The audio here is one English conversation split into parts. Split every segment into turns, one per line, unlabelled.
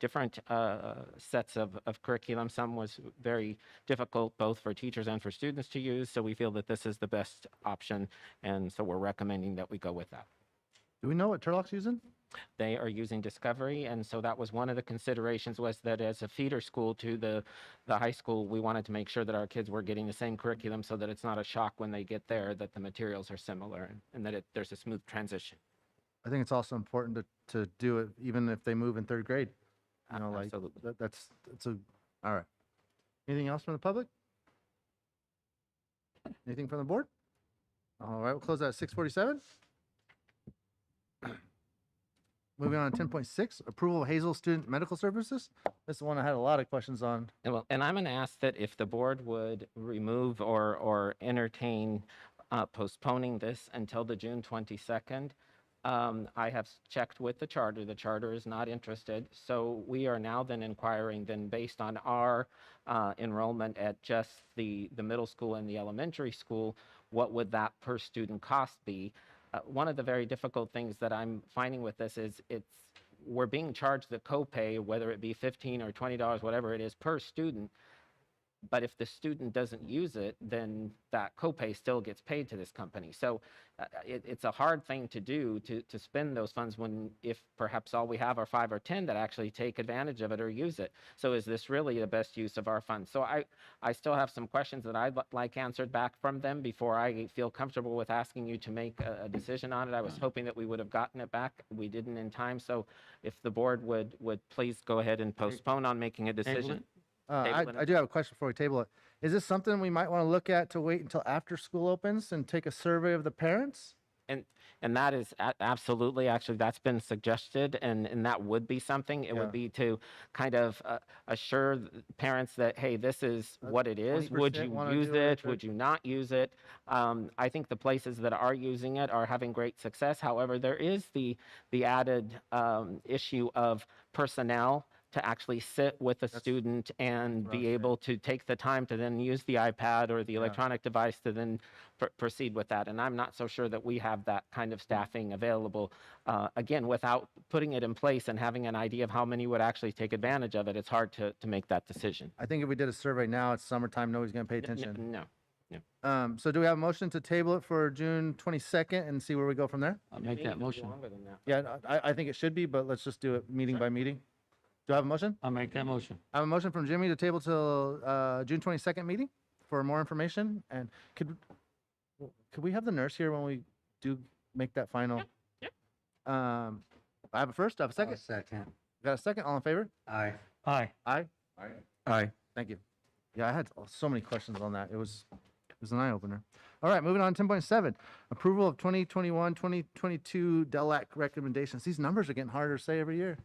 different uh, sets of, of curriculum. Some was very difficult both for teachers and for students to use. So we feel that this is the best option. And so we're recommending that we go with that.
Do we know what Turlock's using?
They are using Discovery. And so that was one of the considerations was that as a feeder school to the, the high school, we wanted to make sure that our kids were getting the same curriculum so that it's not a shock when they get there that the materials are similar and, and that it, there's a smooth transition.
I think it's also important to, to do it even if they move in third grade. You know, like,
Absolutely.
that, that's, that's a, all right. Anything else from the public? Anything from the board? All right, we'll close that at six forty-seven. Moving on to ten point six, approval of Hazel Student Medical Services. This is one I had a lot of questions on.
And well, and I'm going to ask that if the board would remove or, or entertain uh, postponing this until the June 22nd. Um, I have s- checked with the charter. The charter is not interested. So we are now then inquiring then based on our uh, enrollment at just the, the middle school and the elementary school, what would that per student cost be? Uh, one of the very difficult things that I'm finding with this is it's we're being charged the copay, whether it be fifteen or twenty dollars, whatever it is per student. But if the student doesn't use it, then that copay still gets paid to this company. So uh, uh, it, it's a hard thing to do to, to spend those funds when, if perhaps all we have are five or 10 that actually take advantage of it or use it. So is this really the best use of our funds? So I, I still have some questions that I'd li- like answered back from them before I feel comfortable with asking you to make a, a decision on it. I was hoping that we would have gotten it back. We didn't in time. So if the board would, would please go ahead and postpone on making a decision.
Uh,
Table it.
I, I do have a question before we table it. Is this something we might want to look at to wait until after school opens and take a survey of the parents?
And, and that is a- absolutely, actually, that's been suggested, and, and that would be something. It
Yeah.
would be to kind of uh, assure th- parents that, hey, this is
Uh,
what it is. Would
20%
you
wanna
use
do it,
it?
or-
Would you not use it? Um, I think the places that are using it are having great success. However, there is the, the added um, issue of personnel to actually sit with a
That's-
student and
what I was
be
saying.
able to take the time to then use the iPad or the
Yeah.
electronic device to then pr- proceed with that. And I'm not so sure that we have that kind
Mm.
of staffing available. Uh, again, without putting it in place and having an idea of how many would actually take advantage of it, it's hard to, to make that decision.
I think if we did a survey now, it's summertime, nobody's going to pay
N- n-
attention.
No.
Um, so do we have a motion to table it for June twenty-second and see where we go from there?
I'll make that motion.
Yeah, I, I think it should be, but let's just do it meeting by meeting. Do I have a motion?
I'll make that motion.
I have a motion from Jimmy to table till, uh, June twenty-second meeting for more information and could, could we have the nurse here when we do make that final? Um, I have a first, I have a second,
Second.
got a second, all in favor?
Aye. Aye.
Aye?
Aye.
Thank you. Yeah, I had so many questions on that. It was, it was an eye opener. All right, moving on, ten point seven, approval of 2021, 2022 DELAC recommendations. These numbers are getting harder to say every year.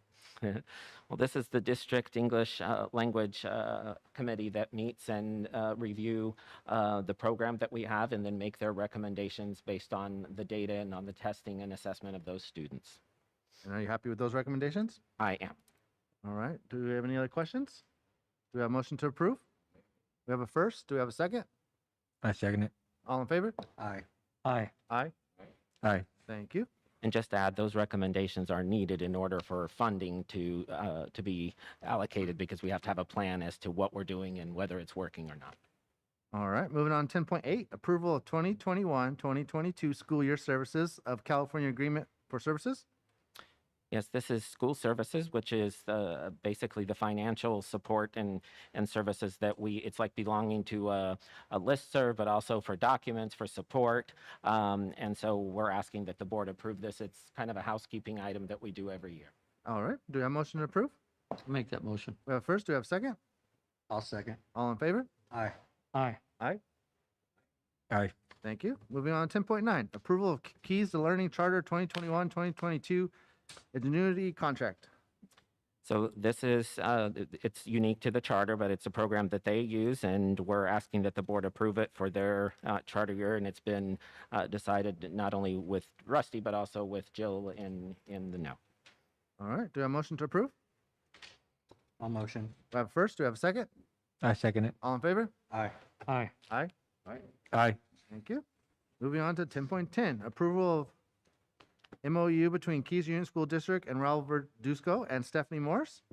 Well, this is the district English uh, language uh, committee that meets and uh, review uh, the program that we have and then make their recommendations based on the data and on the testing and assessment of those students.
And are you happy with those recommendations?
I am.
All right, do we have any other questions? Do we have a motion to approve? We have a first, do we have a second?
I second it.
All in favor?
Aye. Aye.
Aye.
Aye.
Thank you.
And just to add, those recommendations are needed in order for funding to, uh, to be allocated because we have to have a plan as to what we're doing and whether it's working or not.
All right, moving on, ten point eight, approval of 2021-2022 school year services of California Agreement for Services.
Yes, this is school services, which is uh, basically the financial support and, and services that we, it's like belonging to a, a listserv, but also for documents, for support. Um, And so we're asking that the board approve this. It's kind of a housekeeping item that we do every year.
All right, do we have a motion to approve?
Make that motion.
We have a first, do we have a second?
I'll second.
All in favor?
Aye. Aye.
Aye.
Aye.
Thank you. Moving on, ten point nine, approval of K- Keys to Learning Charter 2021-2022 Ingenuity Contract.
So this is, uh, th- th- it's unique to the charter, but it's a program that they use, and we're asking that the board approve it for their uh, charter year. And it's been uh, decided not only with Rusty, but also with Jill in, in the know.
All right, do we have a motion to approve?
I'll motion.
We have a first, do we have a second?
I second it.
All in favor?
Aye. Aye.
Aye.
Aye.
Thank you. Moving on to ten point ten, approval of MOU between Keys Union School District and Raul Verduzco and Stephanie Morse.